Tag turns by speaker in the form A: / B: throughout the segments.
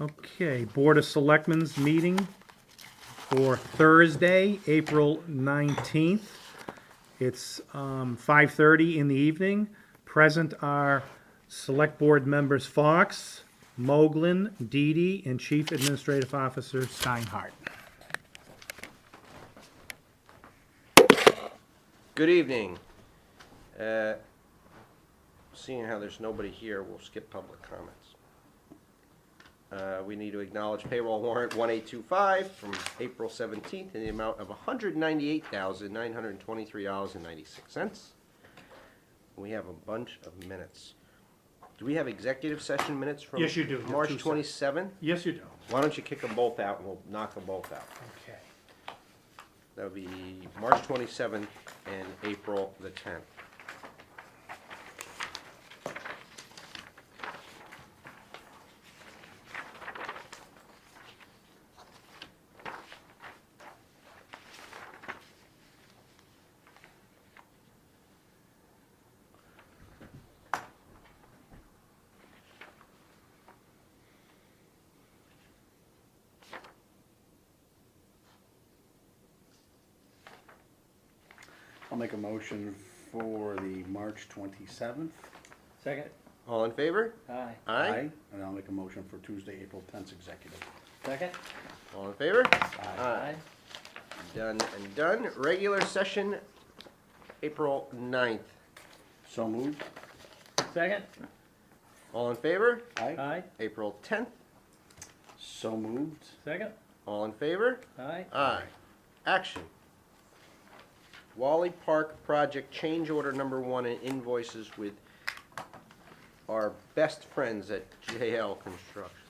A: Okay, Board of Selectmen's meeting for Thursday, April 19th. It's um, 5:30 in the evening. Present are Select Board members Fox, Moglen, Deedy, and Chief Administrative Officer Steinhardt.
B: Good evening. Uh, Seeing how there's nobody here, we'll skip public comments. Uh, We need to acknowledge payroll warrant 1825 from April 17th in the amount of $198,923.96. We have a bunch of minutes. Do we have executive session minutes from?
A: Yes, you do. You have
B: March
A: two sets.
B: 27?
A: Yes, you do.
B: Why don't you kick them both out and we'll knock them both out?
A: Okay.
B: That would be March 27th and April the 10th.
C: I'll make a motion for the March twenty-seventh.
D: Second?
B: All in favor?
D: Aye.
B: Aye.
C: And I'll make a motion for Tuesday, April tenth, executive.
D: Second?
B: All in favor? Done and done. Regular session, April 9th.
C: So moved.
D: Second?
B: All in favor?
C: Aye.
D: Aye.
B: April 10th.
C: So moved.
D: Second?
B: All in favor?
D: Aye.
B: Aye. Action. Wally Park Project Change Order Number One and invoices with our best friends at JL Construction.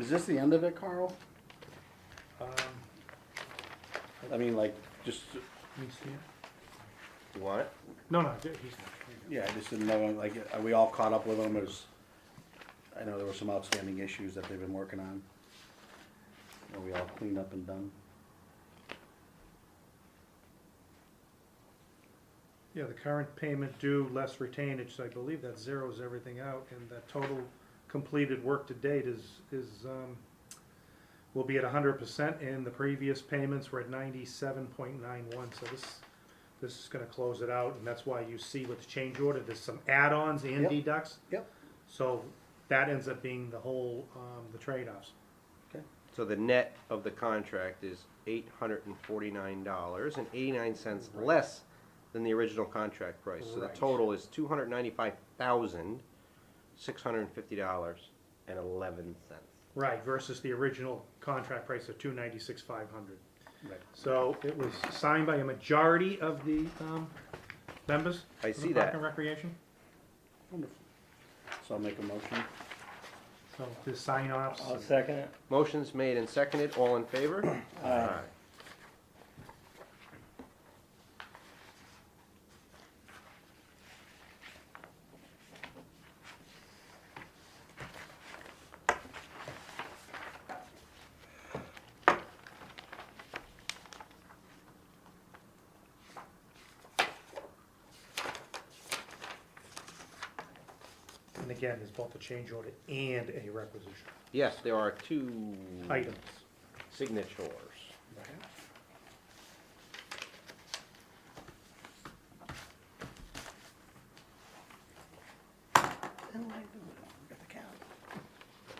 C: Is this the end of it, Carl?
A: Um,
C: I mean, like, just,
A: let me see it.
B: You want it?
A: No, no, he's not.
C: yeah, I just didn't know, like, are we all caught up with them? Is, I know there were some outstanding issues that they've been working on. Are we all cleaned up and done?
A: Yeah, the current payment due less retainage, so I believe that zeroes everything out, and the total completed work to date is, is, um, will be at hundred percent, and the previous payments were at ninety-seven point nine one, so this, this is gonna close it out, and that's why you see with the change order, there's some add-ons and
C: Yep.
A: deducts.
C: Yep.
A: So that ends up being the whole, um, the trade-offs.
B: So the net of the contract is eight hundred and forty-nine dollars and eighty-nine cents less than the original contract price. So the
A: Right.
B: total is two hundred ninety-five thousand, six hundred and fifty dollars and eleven cents.
A: Right, versus the original contract price of two ninety-six five hundred.
C: Right.
A: So it was signed by a majority of the um, members.
B: I
A: of the
B: see
A: Park
B: that.
A: and Recreation,
C: Wonderful. So I'll make a motion.
A: so the sign offs.
D: I'll second it.
B: Motion's made and seconded, all in favor? Aye.
A: And again, there's both a change order and a requisition
B: Yes, there are two
A: items.
B: signatures.
C: Got the count.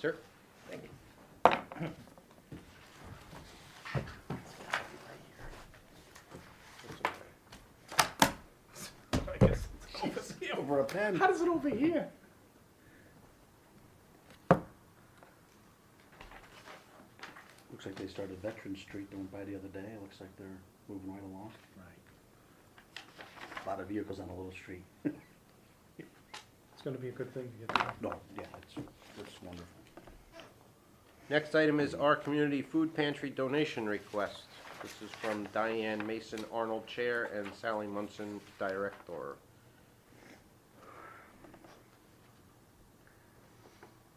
B: Sir?
C: Over a pen.
A: How does it over here?
C: Looks like they started Veteran Street, the one by the other day, it looks like they're moving right along.
A: Right.
C: A Lot of vehicles on a little street.
A: It's gonna be a good thing to get that.
C: No, yeah, it's, it's wonderful.
B: Next item is our community food pantry donation request. This is from Diane Mason Arnold Chair and Sally Munson Director.